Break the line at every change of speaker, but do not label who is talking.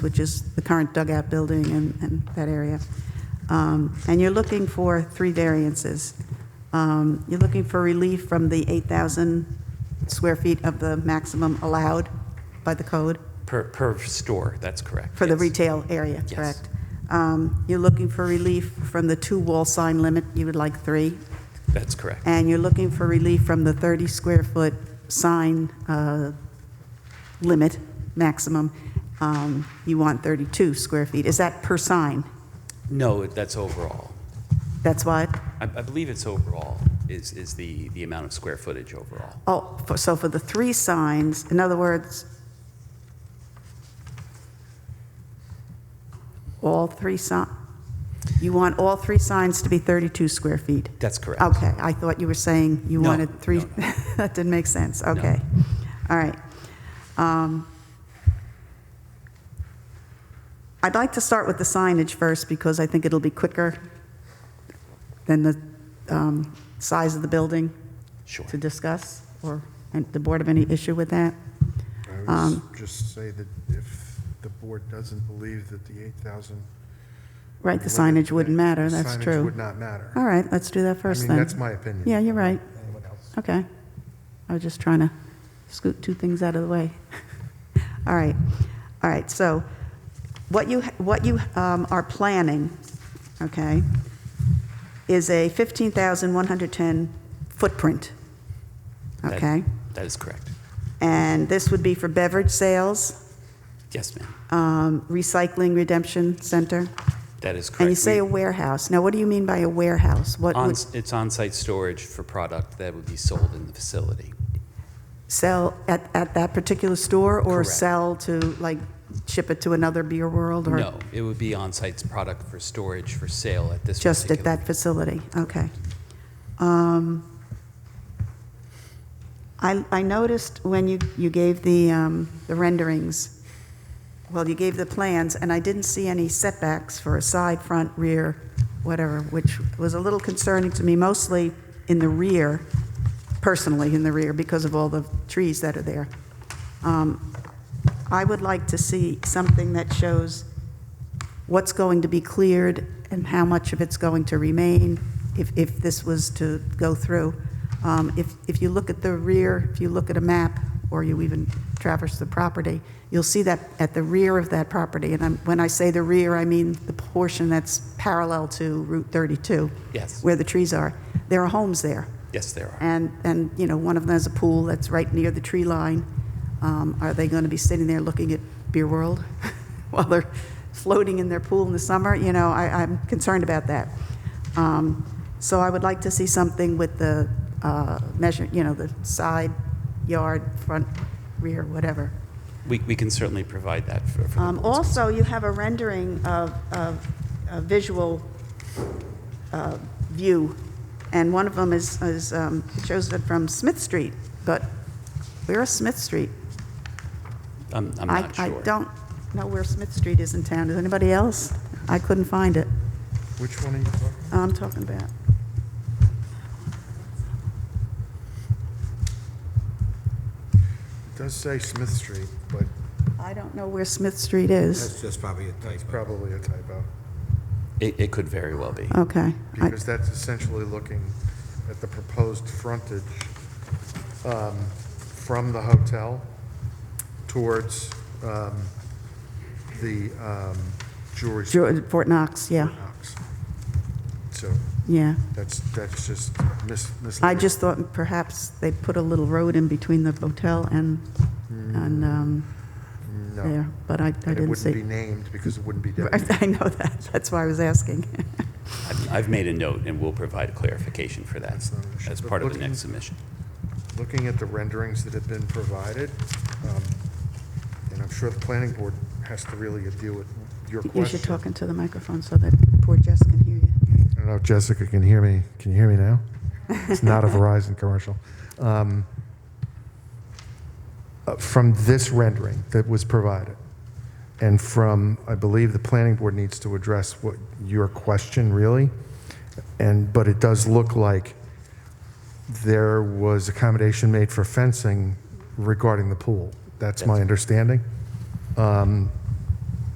which is the current dugout building and, and that area. Um, And you're looking for three variances. Um, You're looking for relief from the 8,000 square feet of the maximum allowed by the code
Per, per store, that's correct.
for the
yes.
retail area,
Yes.
correct? Um, You're looking for relief from the two-wall sign limit, you would like three,
That's correct.
and you're looking for relief from the 30-square-foot sign uh, limit maximum. Um, You want 32 square feet. Is that per sign?
No, that's overall.
That's why,
I, I believe it's overall, is, is the, the amount of square footage overall.
oh, for- so for the three signs, in other words, all three sign, you want all three signs to be 32 square feet?
That's correct.
Okay, I thought you were saying you
No,
wanted three,
no,
that didn't make sense, okay. All right. Um, I'd like to start with the signage first, because I think it'll be quicker than the um, size of the building
Sure.
to discuss, or and the board have any issue with that?
I
Um,
would s- just say that if the board doesn't believe that the 8,000...
Right, the
limit-
signage wouldn't matter, that's
signage
true.
would not matter.
All right, let's do that
I
first
mean,
then.
that's my opinion.
Yeah, you're right. Uh,
Anyone else?
Okay. I was just trying to scoot two things out of the way. All right, all right, so what you, what you um, are planning, okay, is a 15,110 footprint,
That-
okay?
That is correct.
And this would be for beverage sales,
Yes, ma'am.
um, recycling redemption center,
That is correct.
and you say a
We-
warehouse. Now, what do you mean by a warehouse? What
on-
would
It's on-site storage for product that would be sold in the facility.
sell at, at that particular store? Or
Correct.
sell to, like, ship it to another beer world? or
No, it would be on-site product for storage for sale at this
Just at
particular.
that facility, okay. Um, I, I noticed when you, you gave the, um, the renderings, well, you gave the plans, and I didn't see any setbacks for a side, front, rear, whatever, which was a little concerning to me, mostly in the rear, personally in the rear, because of all the trees that are there. Um, I would like to see something that shows what's going to be cleared and how much of it's going to remain if, if this was to go through. Um, If, if you look at the rear, if you look at a map, or you even traverse the property, you'll see that at the rear of that property, and I'm, when I say the rear, I mean the portion that's parallel to Route 32.
Yes.
Where the trees are. There are homes there.
Yes, there are.
And, and, you know, one of them has a pool that's right near the tree line. Um, Are they going to be sitting there looking at Beer World while they're floating in their pool in the summer? You know, I, I'm concerned about that. Um, So I would like to see something with the uh, measure, you know, the side, yard, front, rear, whatever.
We, we can certainly provide that for, for the
Um,
board's-
Also, you have a rendering of, of a visual uh, view, and one of them is, is, um, it shows it from Smith Street, but where is Smith Street?
I'm, I'm
I-
not sure.
I don't know where Smith Street is in town. Does anybody else? I couldn't find it. Oh,
Which one are you talking about?
I'm talking about.
It does say Smith Street, but
I don't know where Smith Street is.
That's just probably a
it's
typo.
probably a typo,
It, it could very well be.
Okay. I-
because that's essentially looking at the proposed frontage um, from the hotel towards um, the um, jewelry store.
Ju- Fort Knox, yeah,
Knox. So
yeah.
that's, that's just mis-
I
misleading.
just thought perhaps they put a little road in between the hotel and, and um,
No.
there, but I I
And it
didn't
wouldn't be
see.
named because it wouldn't be designated.
I know that, that's why I was asking.
I've, I've made a note and we'll provide clarification for that
That's not an issue.
as
But
part of the
looking-
next submission.
Looking at the renderings that have been provided, um, and I'm sure the planning board has to really deal with your
You should
question.
talk into the microphone so that poor Jess can hear you.
I don't know if Jessica can hear me. Can you hear me now? It's not a Verizon commercial. Um, uh, From this rendering that was provided, and from, I believe the planning board needs to address what, your question really, and, but it does look like there was accommodation made for fencing regarding the pool. That's my understanding. Um,